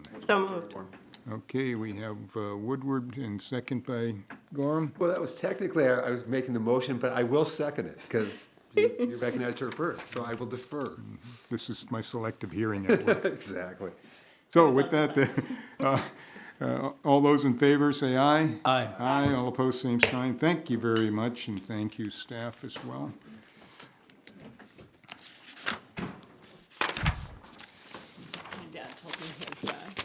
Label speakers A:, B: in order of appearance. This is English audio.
A: So moved.
B: Okay, we have uh, Woodward and second by Gorham.
C: Well, that was technically, I I was making the motion, but I will second it, because you you recognized her first, so I will defer.
B: This is my selective hearing at work.
C: Exactly.
B: So with that, uh, uh, all those in favor, say aye.
D: Aye.
B: Aye, all opposed, same sign. Thank you very much, and thank you, staff, as well.
A: My dad told me his, uh,